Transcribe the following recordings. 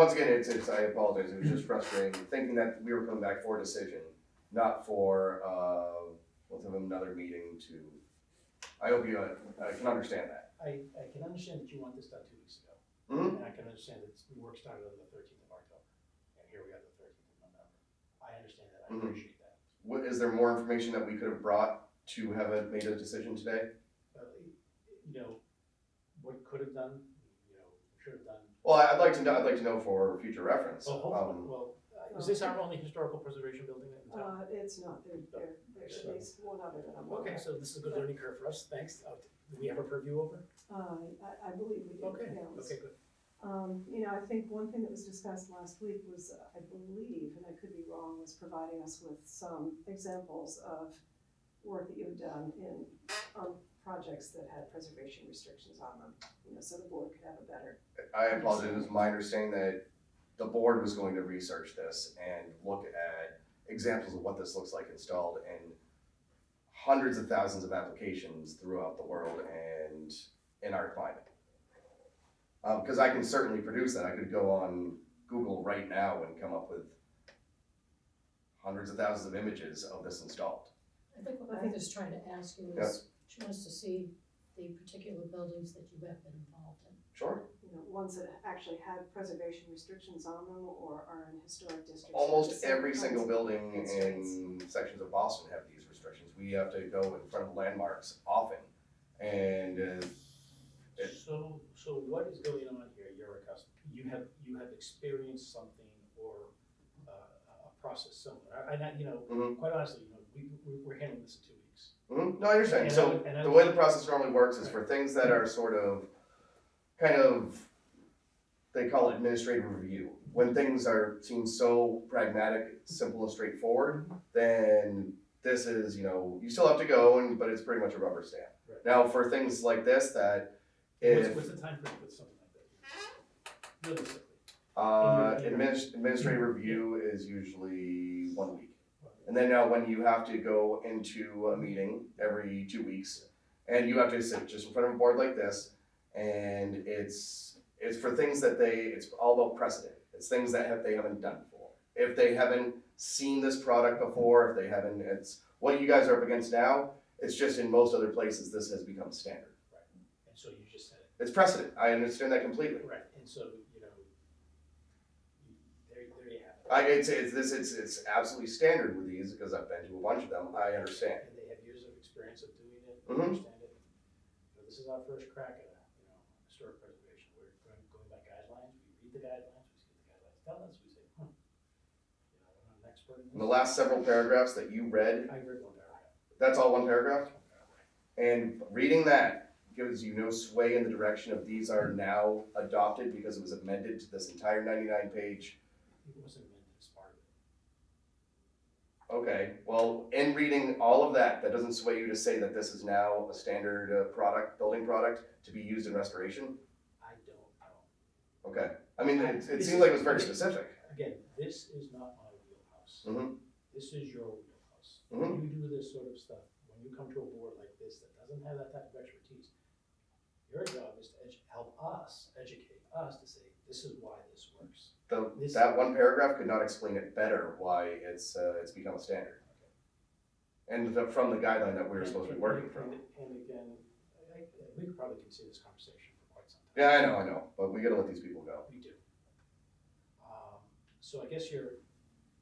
Once again, it's, it's, I apologize, it was just frustrating, thinking that we were coming back for a decision, not for, uh, let's have another meeting to, I hope you, uh, I can understand that. I, I can understand that you want this done two weeks ago. Mhm. And I can understand that the work started on the thirteenth of October, and here we are the thirteenth of November. I understand that, I Mhm. appreciate that. What, is there more information that we could have brought to have a- made a decision today? But, you know, what could have done, you know, should have done. Well, I- I'd like to know, I'd like to know for future reference. Well, hopefully, Um, well, uh, is this our only historical preservation building in town? Uh, it's not, there, there, there's at least one other that I'm aware Okay, of. so this is a good learning curve for us, thanks. Uh, Do we have a purview over? Uh, I, I believe we Okay, did, yeah. it was- okay, good. Um, you know, I think one thing that was discussed last week was, uh, I believe, and I could be wrong, was providing us with some examples of work that you had done in, on projects that had preservation restrictions on them, you know, so the board could have a better. I apologize, it was my understanding that the board was going to research this and look at examples of what this looks like installed in hundreds of thousands of applications throughout the world and in our climate. Um, cause I can certainly produce that, I could go on Google right now and come up with hundreds of thousands of images of this installed. I think what Martha's trying to ask you is, she wants to see the particular buildings that you have been involved in. Sure. You know, ones that actually had preservation restrictions on them or are in historic districts. Almost So every kinds single of- building in constraints. sections of Boston have these restrictions. We have to go in front of landmarks often. And uh, it- So, so what is going on here? You're a customer, you have, you have experienced something or uh, a a process similar. And I, you know, Mhm. quite honestly, you know, we, we- we're handling this in two weeks. mhm, no, I understand. And I So would- and I the would- way the process normally works is for things that are sort of, kind of, they call it administrative review. When things are, seem so pragmatic, simple and straightforward, then this is, you know, you still have to go and, but it's pretty much a rubber stamp. Right. Now, for things like this that What's, if what's the timeframe for something like that? Realistically. Uh, And your- your- adminis- administrative review is usually one week. And then now when you have to go into a meeting every two weeks and you have to sit just in front of a board like this and it's, it's for things that they, it's all about precedent. It's things that have, they haven't done before. If they haven't seen this product before, if they haven't, it's, what you guys are up against now, it's just in most other places, this has become standard. And so you just said it. It's precedent. I understand that completely. Right. And so, you know, you- there, there you have it. I, it's, it's, this, it's, it's absolutely standard with these, because I've been to a bunch of them, I understand. And they have years of experience of doing it, Mhm. they understand it. But this is our first crack at, a, you know, historic preservation, we're going, going by guidelines, we read the guidelines, we see what the guidelines tell us, we say, hmm. You know, we're not an expert in this. In the last several paragraphs that you read, I read one paragraph. that's all one paragraph, and reading that gives you no sway in the direction of these are now adopted, because it was amended to this entire ninety-nine page. It wasn't meant as part of it. Okay, well, in reading all of that, that doesn't sway you to say that this is now a standard uh, product, building product, to be used in restoration? I don't know. Okay, I mean, it, it seems like it was very specific. Again, this is not my wheelhouse. Mhm. This is your wheelhouse. Mhm. When you do this sort of stuff, when you come to a board like this that doesn't have that type of expertise, your job is to edu- help us, educate us to say, this is why this works. The, This- that one paragraph could not explain it better why it's, uh, it's become a standard. And the, from the guideline that we were supposed to be working from. And- And again, I- I- we could probably continue this conversation for quite some time. Yeah, I know, I know, but we gotta let these people go. We do. Um, So I guess you're,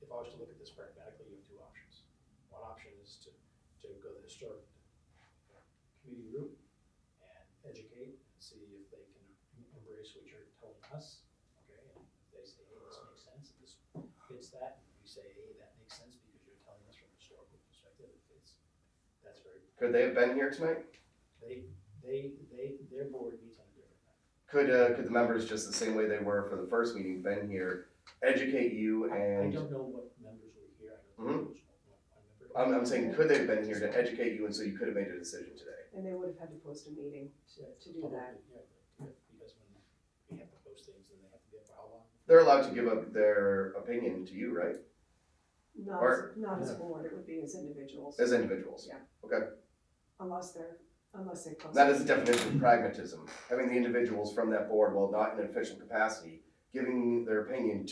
if I was to look at this pragmatically, you have two options. One option is to, to go the historic committee route and educate and see if they can embrace what you're telling us, okay? And if they say, hey, this makes sense, and this fits that, and we say, hey, that makes sense because you're telling us from a historical perspective, it fits. That's very, Could they have been here tonight? they, they, they, their board meets on a different night. Could, uh, could the members, just the same way they were for the first meeting, been here, educate you I and, don't know what members were here, I don't know. if there was one- one member. Mm-hmm. I'm, I'm saying, could they have been here to educate you and so you could have made a decision today? And they would have had to post a meeting to, to do that. Yeah, yeah, Because when we have to post things, then they have to get for how long? They're allowed to give up their opinion to you, right? Not, Or- as- not as a board, it would be as individuals, As individuals. unless they're, unless they post. That is the definition of pragmatism, having the individuals from that board, while not in an official capacity, giving their opinion